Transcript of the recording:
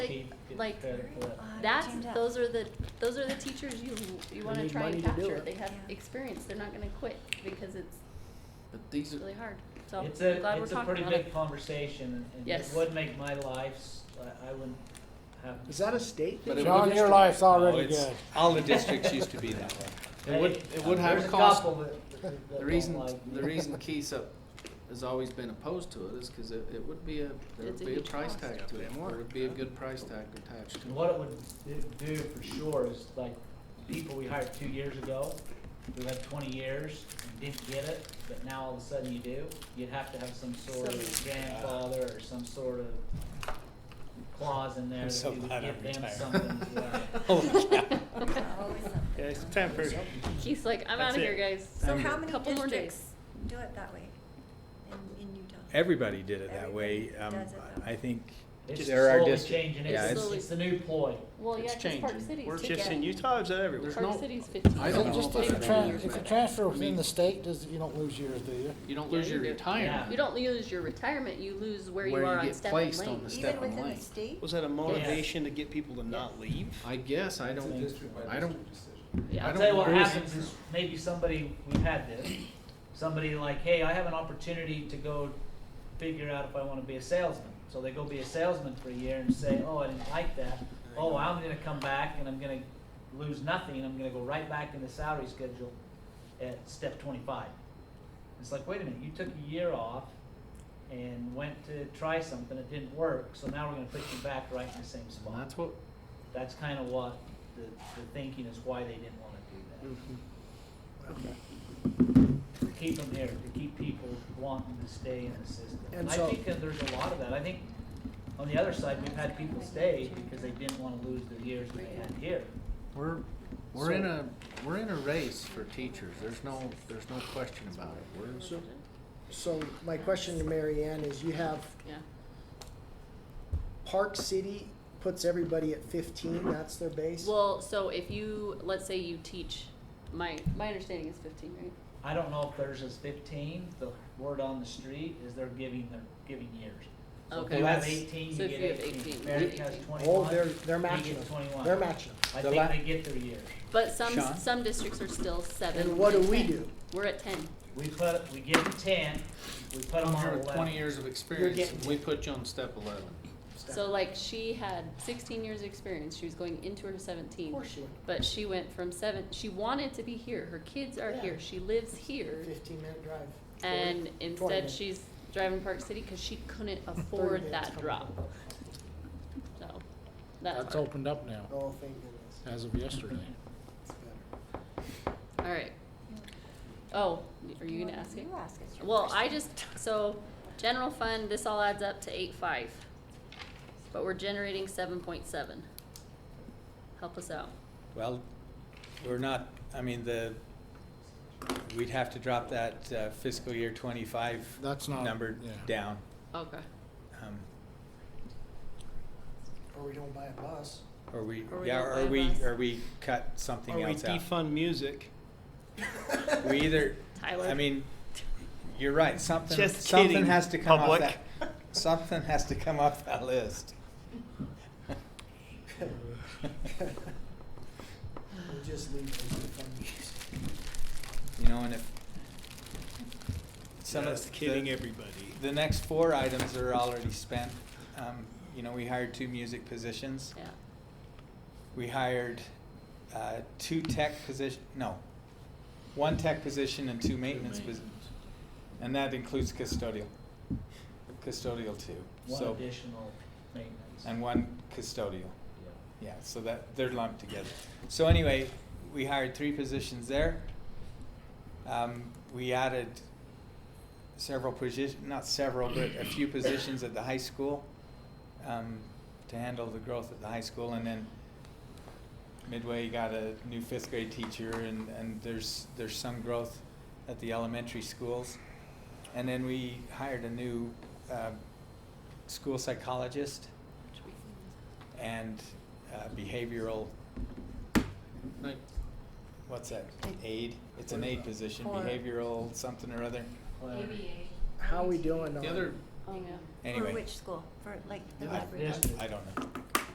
getting Like, prepared for that. Uh, That's, change up. those are the, those are the teachers you, you wanna need try and money to do capture, it. they have Yeah. experience, they're not gonna quit, because it's But these are, really hard, so I'm It's a, glad we're it's a talking pretty about it. big conversation and it Yes. would make my life, s- I I wouldn't have. Is that a state But thing? it John, your life's Oh, already it's- good. all the districts used to be that way. Hey, uh, It would, it would have a there's cost. couple that- that- that The don't reason, like me. the reason Keysup has always been opposed to it is because it, it would be a, there It's would a be a huge price cost. tag to it. Goddamn There work. would be a good price tag attached And to it. What it would do- do for sure is like, people we hired two years ago, who had twenty years and didn't get it, but now all of a sudden you do, you'd have to have some sort of Some- grandfather or some sort of clause in there I'm that so you would glad I'm give them retired. Oh. something. yeah. Oh, Yeah, it's time for, He's like, I'm That's out of here, it. guys. So how many Couple more districts days. do it that way in, in Utah? everybody did it that way. Everybody Um, does it that I way. think, It's There are slowly dis- changing, yeah, it's, it's- it's the new ploy. Well, yeah, It's 'cause Park changing. City's We're taking just in it. Utah, is that everywhere? There's Park no- City's fifteen. I So don't just know if if you that tran- matters, if you but- transfer I within mean- the state, does, you don't lose yours, do you? You don't Yeah, lose you your do. Yeah. retirement. You don't lose your retirement, you lose where you Where you are on get step and placed on lane. the step. Even Step within the online. state? Was that a motivation to get people to not leave? I guess, I don't, I don't, Yeah. I I'll don't tell you what know. happens is maybe somebody, we've had this, somebody like, hey, I have an opportunity to go figure out if I wanna be a salesman. So they go be a salesman for a year and say, oh, I didn't like that. Oh, I'm gonna come back and I'm gonna lose nothing. I'm gonna go right back in the salary schedule at step twenty-five. It's like, wait a minute, you took a year off and went to try something, it didn't work, so now we're gonna put you back right in the same and spot. that's what, That's kinda what the, the thinking is why they didn't wanna do that to keep them there, to keep people wanting to stay in the system. And And I so- think that there's a lot of that. I think on the other side, we've had people stay because they didn't wanna lose the years that they had here. we're, we're in So- a, we're in a race for teachers. There's no, there's no question about it. We're, So my question to Mary Ann is you have Yeah, Park City puts everybody at fifteen, that's their base? well, so if you, let's say you teach, my, my understanding is fifteen, right? I don't know if theirs is fifteen. The word on the street is they're giving, they're giving years. So if Okay. you have That's- eighteen, you so if get you have eighteen. 18, Eric we- has Oh, they're, twenty-one. they're he matching gets them. 21. They're matching them. I The think la- they get their years. But some, Sean? some districts are still seven. And what do we 10. do? We're at ten. We put, we give them ten, we put them on here eleven. with twenty years of experience, getting- we put you on step eleven. So like she had sixteen years of experience, she was going into her seventeen. Of course you would. But she went from seven, she wanted to be here, her kids are Yeah. here, she lives here. Fifteen minute drive. And instead minutes. she's driving Park City because she couldn't minutes afford that coming drop. So, that's That's hard. opened up now, Oh, thank goodness. as of yesterday. It's better. Alright. Oh, are you gonna ask it? You ask it. Well, I just, so, general fund, this all adds up to eight five. But we're generating seven point seven. Help us out. Well, we're not, I mean, the, we'd have to drop that uh, fiscal year twenty-five That's not- number yeah. down. Okay. um, Or we don't buy a bus. Or we, Or we yeah, don't or buy we, bus. or we cut Or something we else out. defund music? We either, Tyler. I mean, you're right, something, Just something kidding, has to come off public. that, something has to come off that list. We'll just leave it for fun. You know, and if. some of Just kidding the- everybody. The next four items are already spent. Um, you know, we hired two music positions. Yeah. We hired, uh, two tech position, no, one tech position and two maintenance positions. And that includes custodial, custodial too. One So, additional maintenance. and one custodial, Yeah. yeah, so that, they're lumped together. So anyway, we hired three positions there. Um, we added several position, not several, but a few positions at the high school, um, to handle the growth at the high school, and then Midway got a new fifth grade teacher, and, and there's, there's some growth at the elementary schools. And then we hired a new, um, school psychologist and, uh, behavioral, Like, what's that, aid? It's an aid position, Or- behavioral something or other, Well, How we doing on? The other Oh, yeah. anyway. For which school? For like the Yeah. library? Yes. I don't know.